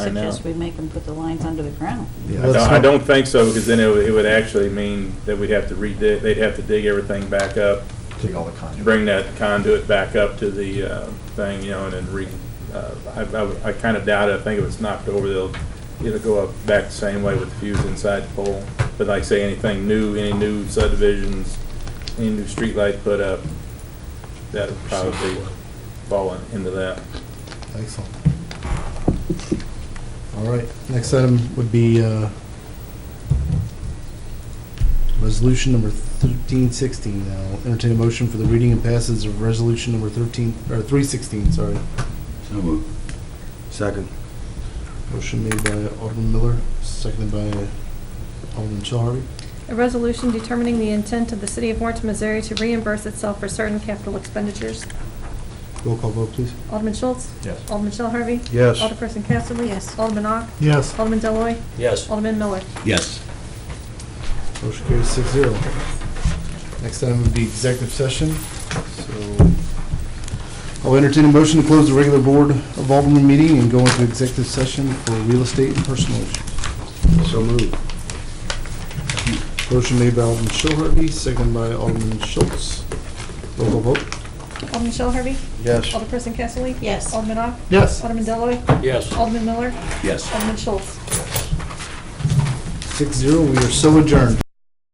I know. suggest we make them put the lines under the ground. Yeah, I that's don't, I not- don't think so, because then it would, it would actually mean that we'd have to redig, they'd have to dig everything back up, Take all the conduit. bring that conduit back up to the, uh, thing, you know, and then re, uh, I, I would- I kind of doubt it, I think if it's knocked over, they'll, it'll go up back the same way with the fuse inside the pole. But like I say, anything new, any new subdivisions, any new streetlight put up, that would probably fall in- into that. Excellent. All right, next item would be uh, resolution number 1316. Now, entertain a motion for the reading and passage of resolution number 13, or 316, sorry. So moved. Second. Motion made by Alderman Miller, seconded by Alderman Shell Harvey. A resolution determining the intent of the city of Warrenton, Missouri to reimburse itself for certain capital expenditures. Roll call vote, please. Alderman Schultz? Yes. Alderman Shell Harvey? Yes. Alderperson Casterly? Yes. Alderman Ock? Yes. Alderman Deloy, Yes. Alderman Miller? Yes. Motion carries six zero. Next item would be executive session, so I'll entertain a motion to close the regular Board of Alderman meeting and go into executive session for real estate and personal issues. So moved. Motion made by Alderman Shell Harvey, seconded by Alderman Schultz. Roll call vote. Alderman Shell Harvey? Yes. Alderperson Casterly? Yes. Alderman Ock? Yes. Alderman Deloy, Yes. Alderman Miller? Yes. Alderman Schultz? Six zero, we are so adjourned.